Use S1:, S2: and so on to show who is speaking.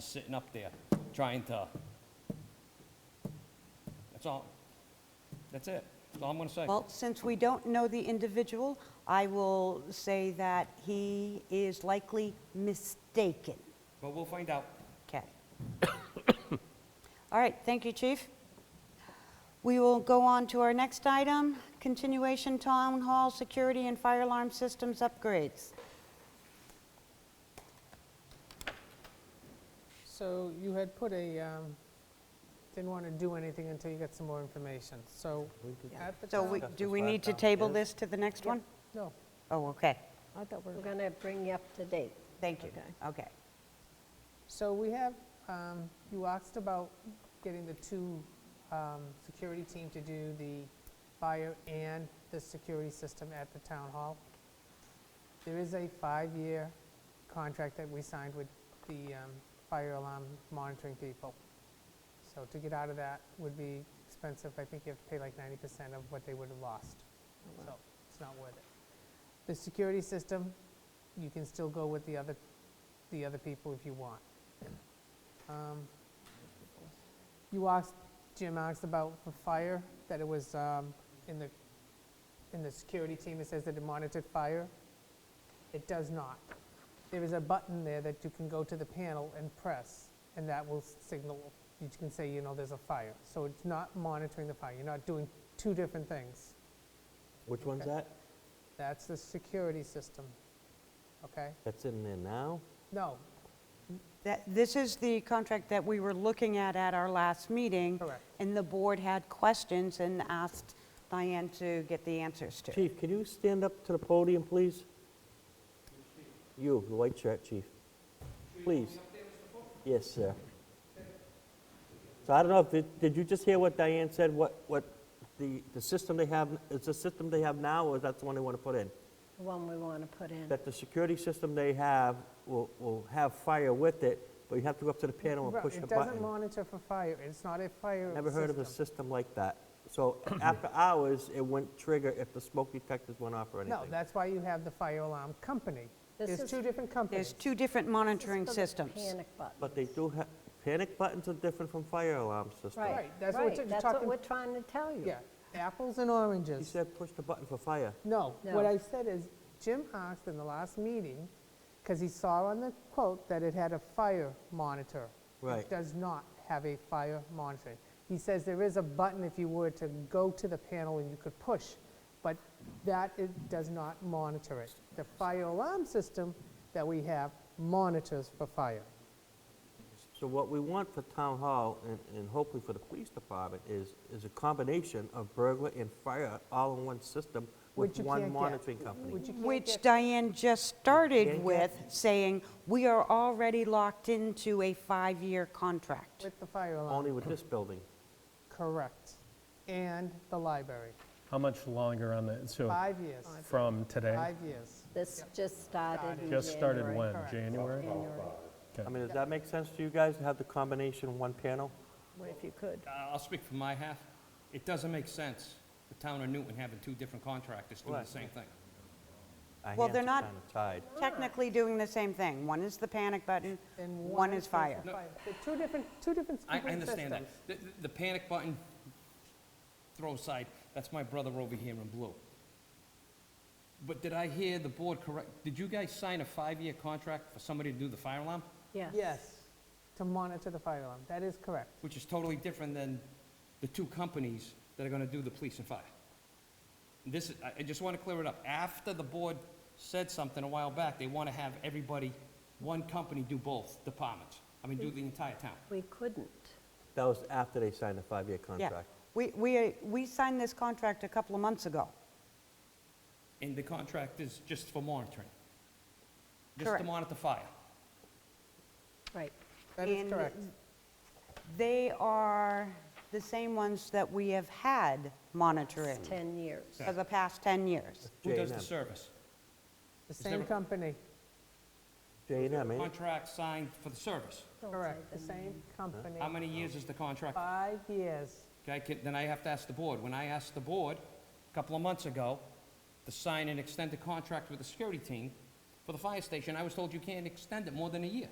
S1: sitting up there trying to, that's all, that's it, that's all I'm going to say.
S2: Well, since we don't know the individual, I will say that he is likely mistaken.
S1: But we'll find out.
S2: Okay. All right, thank you, chief. We will go on to our next item, continuation town hall security and fire alarm systems upgrades.
S3: So you had put a, um, didn't want to do anything until you got some more information, so at the
S2: So we-
S3: town-
S2: do we need to table this to the next one?
S3: No,
S2: Oh, okay,
S3: I thought we
S4: We're
S3: were,
S4: going to bring you up to date.
S2: thank you,
S4: Okay.
S2: okay.
S3: so we have, um, you asked about getting the two um, security team to do the fire and the security system at the town hall. There is a five-year contract that we signed with the um, fire alarm monitoring people. So to get out of that would be expensive. I think you have to pay like 90% of what they would have lost. So it's not worth it. The security system, you can still go with the other, the other people if you want. Um, You asked, Jim asked about the fire, that it was um, in the, in the security team, it says that it monitored fire. It does not. There is a button there that you can go to the panel and press, and that will signal, you can say, you know, there's a fire. So it's not monitoring the fire, you're not doing two different things.
S5: Which one's
S3: Okay.
S5: that?
S3: That's the security system, okay?
S5: That's in there now?
S3: No,
S2: That, this is the contract that we were looking at at our last meeting.
S3: Correct.
S2: And the board had questions and asked Diane to get the answers to.
S5: Chief, can you stand up to the podium, please? You, the white shirt, chief. Please. Yes, sir. So I don't know, if did- did you just hear what Diane said, what, what the, the system they have, is the system they have now, or is that the one they want to put in?
S4: The one we want to put in.
S5: That the security system they have will, will have fire with it, but you have to go up to the panel and
S3: Right,
S5: push the
S3: it doesn't
S5: button.
S3: monitor for fire, it's not a fire
S5: Never heard of a
S3: system.
S5: system like that. So after hours, it wouldn't trigger if the smoke detectors went off or anything.
S3: No, that's why you have the fire alarm company.
S4: This
S3: There's
S4: is-
S3: two different
S2: There's
S3: companies.
S2: two different monitoring
S4: This is for the
S2: systems.
S4: Panic button.
S5: But they do have, panic buttons are different from fire alarm systems.
S4: Right,
S3: Right, that's what
S4: right,
S3: you're
S4: that's what
S3: talking-
S4: we're trying to tell you.
S3: Yeah, apples and
S5: He
S3: oranges.
S5: said push the button for fire.
S3: No,
S4: No.
S3: what I said is, Jim asked in the last meeting, because he saw on the quote that it had a fire monitor. It
S5: Right.
S3: does not have a fire monitoring. He says there is a button if you were to go to the panel and you could push, but that it does not monitor it. The fire alarm system that we have monitors for fire.
S5: So what we want for town hall and, and hopefully for the police department is, is a combination of burglar and fire all in one system with
S3: Which you
S5: one
S3: can't get.
S5: monitoring company.
S3: Would you care-
S2: Which Diane just started
S5: Can't
S2: with,
S5: get-
S2: saying, we are already locked into a five-year contract.
S3: With the fire alarm,
S5: Only with this building.
S3: correct. And the library,
S6: How much longer on the, so
S3: five years,
S6: from today?
S3: five years.
S4: This just started in
S6: Just started
S4: January.
S6: when?
S3: Correct.
S6: January?
S4: January,
S5: I mean, does that make sense to you guys to have the combination in one panel?
S4: What if you could.
S1: I- Uh, I'll speak for my half. It doesn't make sense, the town of Newton having two different contractors doing the
S5: Right.
S1: same thing.
S5: Our
S2: Well, they're
S5: hands are
S2: not-
S5: kinda tied.
S2: Technically doing the same thing. One is the panic button,
S3: And
S2: one is fire.
S3: the They're two different, two different
S1: I, I
S3: different
S1: understand that.
S3: systems.
S1: The, the- the panic button, throw aside, that's my brother over here in blue. But did I hear the board correct, did you guys sign a five-year contract for somebody to do the fire alarm?
S4: Yeah.
S3: Yes, to monitor the fire alarm, that is correct.
S1: Which is totally different than the two companies that are gonna do the police and fire. This, is- I, I just wanna clear it up. After the board said something a while back, they wanna have everybody, one company do both departments. I mean, do the entire town.
S4: We couldn't.
S5: That was after they signed the five-year
S2: Yeah.
S5: contract.
S2: We, we, we signed this contract a couple of months ago.
S1: And the contract is just for monitoring. Just to
S2: Correct.
S1: monitor fire.
S4: Right.
S3: That is
S2: And
S3: correct.
S2: They are the same ones that we have had monitoring
S4: It's 10 years.
S2: for the past 10 years.
S1: Who does the
S5: J&amp.
S1: service?
S3: The
S1: there
S3: same
S1: a-
S3: company,
S5: J and M, eh?
S1: Contract signed for the service.
S4: Don't say
S3: correct, the
S4: the
S3: same company.
S1: How many years is the contract?
S3: Five years.
S1: Okay, can- then I have to ask the board. When I asked the board a couple of months ago to sign an extended contract with the security team for the fire station, I was told you can't extend it more than a year.